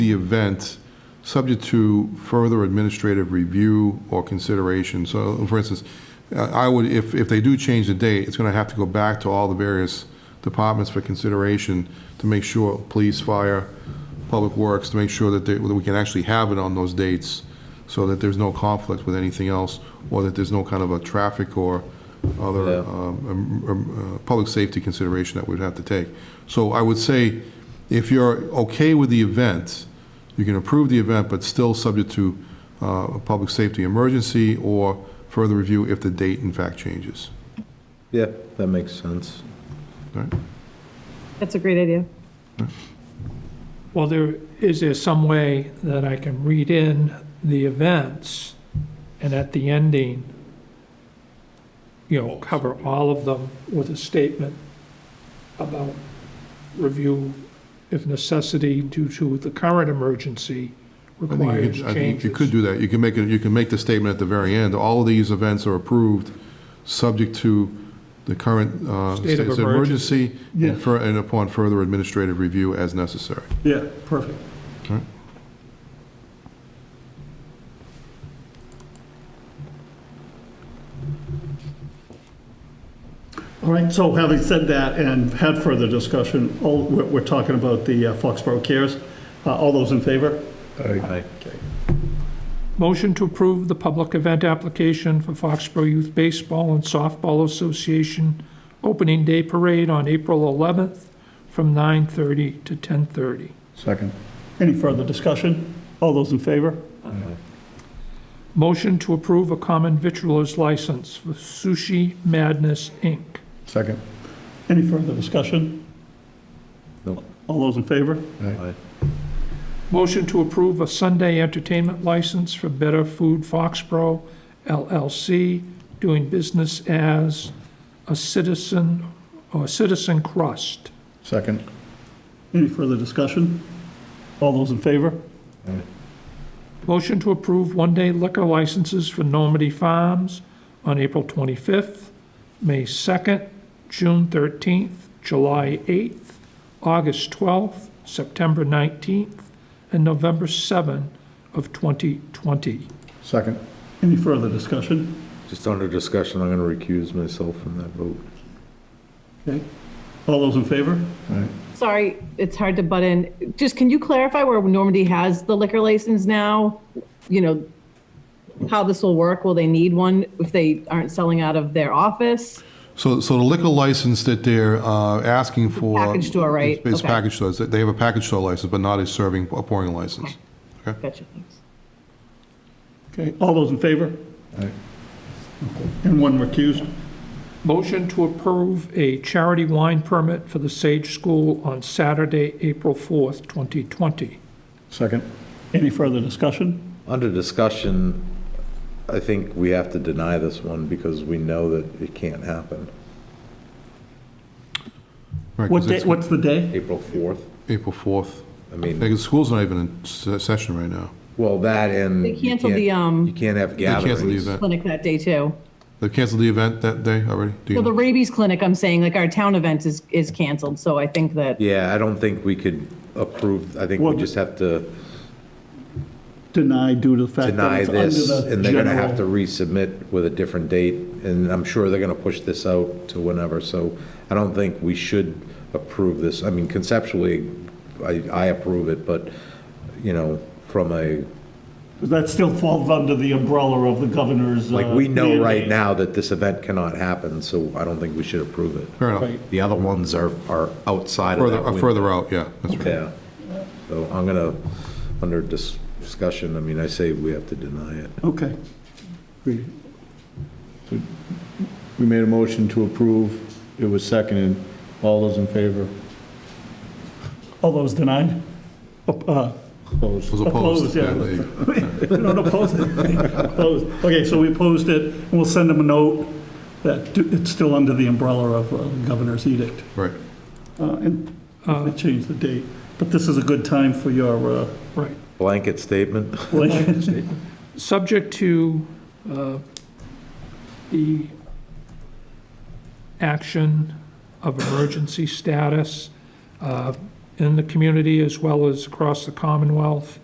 the event, subject to further administrative review or consideration. So, for instance, uh, I would, if, if they do change the date, it's going to have to go back to all the various departments for consideration to make sure, police, fire, public works, to make sure that they, that we can actually have it on those dates so that there's no conflict with anything else, or that there's no kind of a traffic or other Yeah. um, um, um, uh, public safety consideration that we'd have to take. So I would say, if you're okay with the event, you can approve the event, but still subject to uh, a public safety emergency or further review if the date in fact changes. Yeah, that makes sense. All right? That's a great idea. Well, there, is there some way that I can read in the events and at the ending, you know, cover all of them with a statement about review if necessity due to the current emergency I think you requires could- I think You could changes? do that. You can make, it. you can make the statement at the very end, all of these events are approved, subject to the current uh, State of states of emergency Yeah. and fur- and upon further administrative review as necessary. Yeah, perfect. All right, so having said that and had further discussion, all, we're, we're talking about the uh, Foxborough Cares. Uh, all those in favor? Aye. Motion to approve the public event application for Foxborough Youth Baseball and Softball Association Opening Day Parade on April 11th from 9:30 to 10:30. Second. Any further discussion? All those in favor? Motion to approve a common vitriol's license for Sushi Madness, Inc. Second. Any further discussion? No. All those in favor? Aye. Motion to approve a Sunday entertainment license for Better Food Foxborough LLC, doing business as a citizen or Citizen Crust. Second. Any further discussion? All those in favor? Motion to approve one-day liquor licenses for Normandy Farms on April 25th, May 2nd, June 13th, July 8th, August 12th, September 19th, and November 7 of 2020. Second. Any further discussion? Just under discussion, I'm going to recuse myself from that vote. Okay. All those in favor? Sorry, it's hard to butt in. Just can you clarify where Normandy has the liquor license now? You know, how this will work? Will they need one if they aren't selling out of their office? So, so the liquor license that they're uh, asking for. Package store, right? It's- It's Okay. package stores. They have a package store license, but not a serving, a pouring license. Gotcha, thanks. Okay, all those in favor? Aye. And one recused? Motion to approve a charity wine permit for the Sage School on Saturday, April 4th, 2020. Second. Any further discussion? Under discussion, I think we have to deny this one because we know that it can't happen. Right, 'cause What day, it's what's the day? April 4th, April 4th. I Like, mean, the school's not even in se- session right now. well, that and. They you canceled can't- the, um, You can't have They canceled the gatherings. event. Clinic that day too. They canceled the event that day already? Do you Well, know? the rabies clinic, I'm saying, like our town event is, is canceled, so I think that, Yeah, I don't think we could approve, I think Well, we just have to Deny due to the fact that deny it's under this, the and they're going to have to general- resubmit with a different date, and I'm sure they're going to push this out to whenever, so I don't think we should approve this. I mean, conceptually, I, I approve it, but, you know, from a, That still falls under the umbrella of the governor's. like, uh, we know right mandate. now that this event cannot happen, so I don't think we should approve it. Fair enough. The other ones are, are outside of Further, that uh, window. further out, yeah, that's right. Yeah, so I'm going to, under dis- discussion, I mean, I say we have to deny it. Okay. Agreed. We made a motion to approve. It was seconded. All those in favor? All those denied? Op- uh, Opposed? It was opposed. Opposed, yeah. there you go. We don't oppose it. Opposed. Okay, so we opposed it, and we'll send them a note that do- it's still under the umbrella of uh, the governor's edict, Right. uh, and if they change the date. But this is a good time for your, uh, Right. Blanket statement? like- subject to uh, the action of emergency status, uh, in the community as well as across the Commonwealth.